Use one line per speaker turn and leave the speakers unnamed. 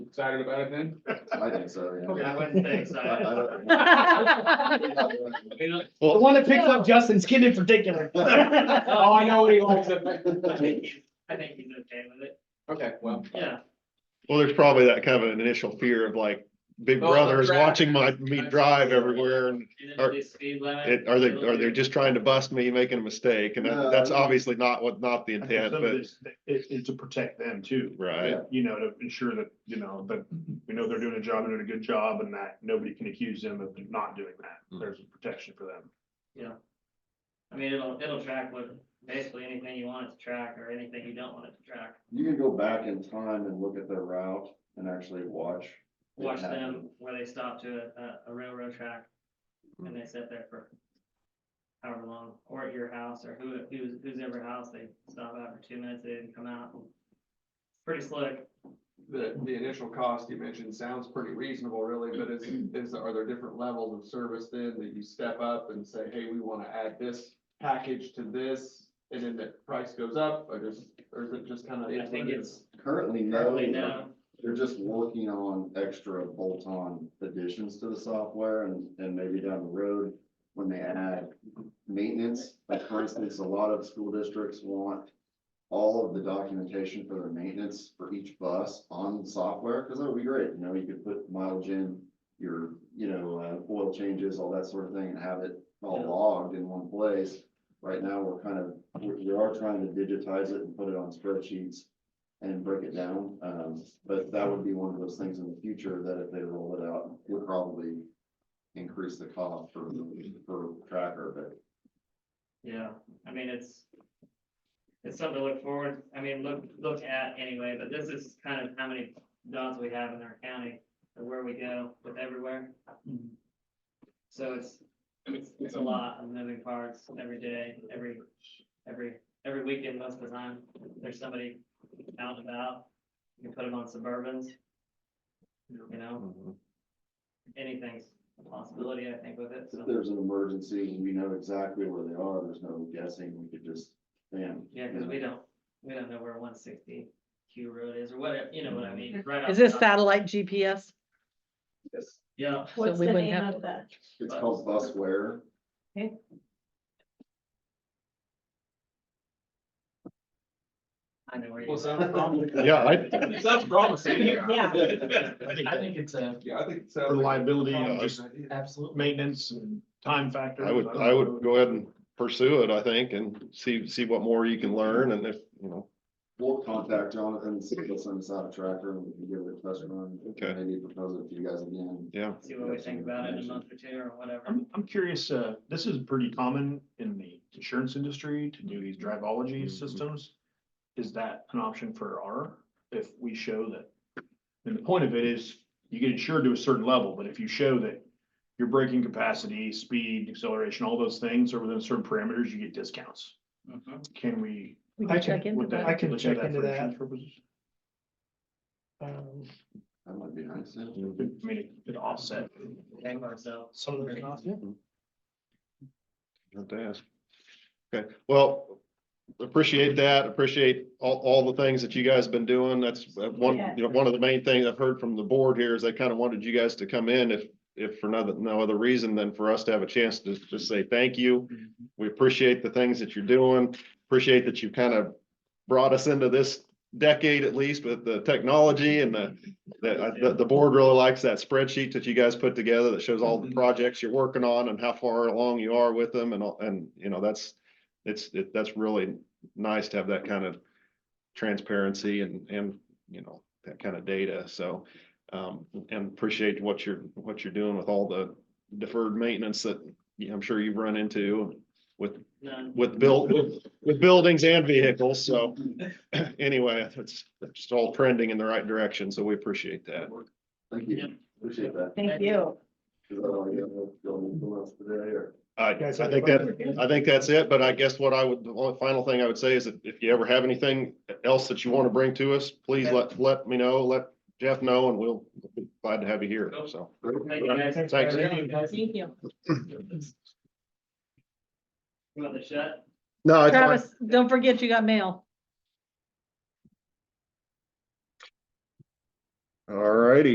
excited about it then?
I think so, yeah.
I wouldn't think so.
I- I don't-
The one that picks up Justin's kid in particular.
Oh, I know what he wants.
I think he's I think he's okay with it,
Okay, well.
yeah.
Well, there's probably that kind of an initial fear of like, big
Oh, the
brother is
draft.
watching my, me drive everywhere and
He
Are-
didn't do speed limit.
it, are they, are they just trying to bust me, making a mistake? And that- that's
No.
obviously not what, not the
I think
intent,
some of
but,
this, It, it's to protect them too,
right,
you know, to ensure that, you know, that we know they're doing a job, they're doing a good job and that nobody can accuse them of not doing that.
Mm.
There's a protection for them.
I mean, it'll, it'll track with basically anything you want it to track or anything you don't want it to track.
You can go back in time and look at their route and actually watch. it
Watch them
happen.
where they stop to a- a, a railroad track and they sit there for however long, or at your house or who, who's, who's ever house, they stop out for two minutes, they didn't come out. Pretty slick.
The, the initial cost you mentioned sounds pretty reasonable really, but is, is, are there different levels of service then that you step up and say, hey, we want to add this package to this? And then the price goes up or just, or is it just kind of?
I think it's
Currently,
early
no,
now.
they're just working on extra bolt-on additions to the software and, and maybe down the road. When they add maintenance, like for instance, a lot of school districts want. All of the documentation for their maintenance for each bus on software, because that would be great, you know, you could put mileage in. Your, you know, uh, oil changes, all that sort of thing, and have it all
Yeah.
logged in one place. Right now, we're kind of, we we are trying to digitize it and put it on spreadsheets and break it down. Um, but that would be one of those things in the future that if they roll it out, would probably increase the cost for, for tracker, but
Yeah, I mean, it's. It's something to look forward, I mean, look, look at anyway, but this is kind of how many dogs we have in our county and where we go with everywhere. So it's, it's, it's a lot of moving parts every day, every, every, every weekend, most of the time, there's somebody out and about. You can put them on suburbans. You know, anything's a possibility, I think, with it,
If
so,
there's an emergency, and we know exactly where they are, there's no guessing, we could just, bam.
yeah, because we don't, we don't know where one sixty Q road is or whatever, you know what I mean? right off
Is
the
this
top.
satellite GPS?
Yeah,
What's
we
the
wouldn't
name
have-
of that?
It's called busware.
I know where you.
Well, sounds promising.
yeah, I,
Sounds promising.
Yeah.
I think it's a
Yeah, I think
for
so.
liability and just
Absolutely.
maintenance and time factor.
I would,
don't
I
know.
would go ahead and pursue it, I think, and see, see what more you can learn and if, you know,
We'll contact Jonathan, and see if he'll send us out a tracker, and we can give it a test run.
Okay.
Maybe propose it to you guys again.
yeah.
See what we think about it in a month or two or whatever.
I'm, I'm curious, uh, this is pretty common in the insurance industry to do these drivology
Mhm.
systems. Is that an option for our, if we show that? And the point of it is, you get insured to a certain level, but if you show that your braking capacity, speed, acceleration, all those things are within certain parameters, you get discounts.
Mhm.
Can we?
We can check into
would that-
that.
would that for insurance purposes?
Um,
That might be nice, yeah.
I mean, it could offset.
Hang myself.
some of those not.
Mm-hmm. Have to ask. Okay, well, appreciate that, appreciate all, all the things that you guys have been doing. That's uh, one,
Yeah.
you know, one of the main things I've heard from the board here is they kind of wanted you guys to come in if, if for no, no other reason than for us to have a chance to just say thank you. We appreciate the things that you're doing, appreciate that you've kind of brought us into this decade at least with the technology and the, the, the, the board really likes that spreadsheet that you guys put together that shows all the projects you're working on and how far along you are with them and, all- and, you know, that's, it's, it, that's really nice to have that kind of transparency and, and, you know, that kind of data, so, um, and appreciate what you're, what you're doing with all the deferred maintenance that you know, I'm sure you've run into with
None.
with built, with- with buildings and vehicles, so. Anyway, it's, it's just all trending in the right direction, so we appreciate that.
Thank
Yeah.
you, appreciate that.
Thank you.
Is that all you have, Bill, anything else today, or?
I, I think that, I think that's it, but I guess what I would, the only final thing I would say is that if you ever have anything else that you want to bring to us, please let, let me know, let Jeff know, and we'll be glad to have you here, so.
Thank you guys.
Thanks.
Thank you.
uh,
You want the shut?
No, it's fine.
Travis, don't forget you got mail.
All righty.